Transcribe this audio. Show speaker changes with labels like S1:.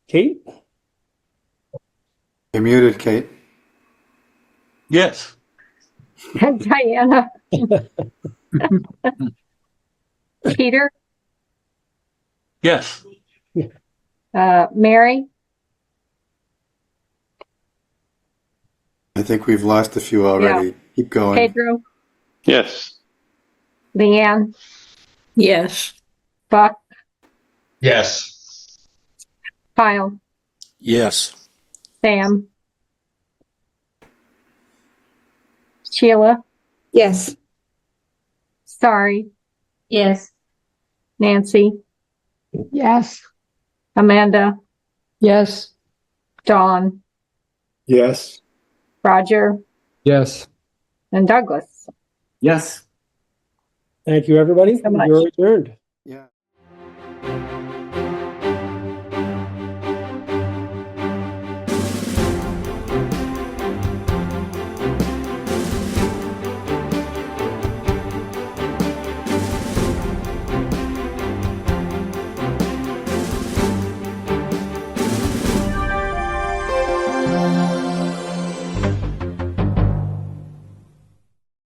S1: Kate?
S2: You're muted, Kate.
S3: Yes.
S4: Diana. Peter,
S3: Yes.
S4: uh, Mary,
S2: I think we've lost a few already. Keep going.
S4: Pedro,
S3: Yes.
S4: Leanne,
S5: Yes.
S4: Buck,
S6: Yes.
S4: Kyle,
S7: Yes.
S4: Sam, Sheila,
S5: Yes.
S4: sorry,
S5: Yes.
S4: Nancy,
S5: Yes.
S4: Amanda,
S5: Yes.
S4: Dawn,
S6: Yes.
S4: Roger,
S6: Yes.
S4: and Douglas.
S6: Yes.
S1: Thank you, everybody.
S4: so much.
S1: You're adjourned.
S2: Yeah.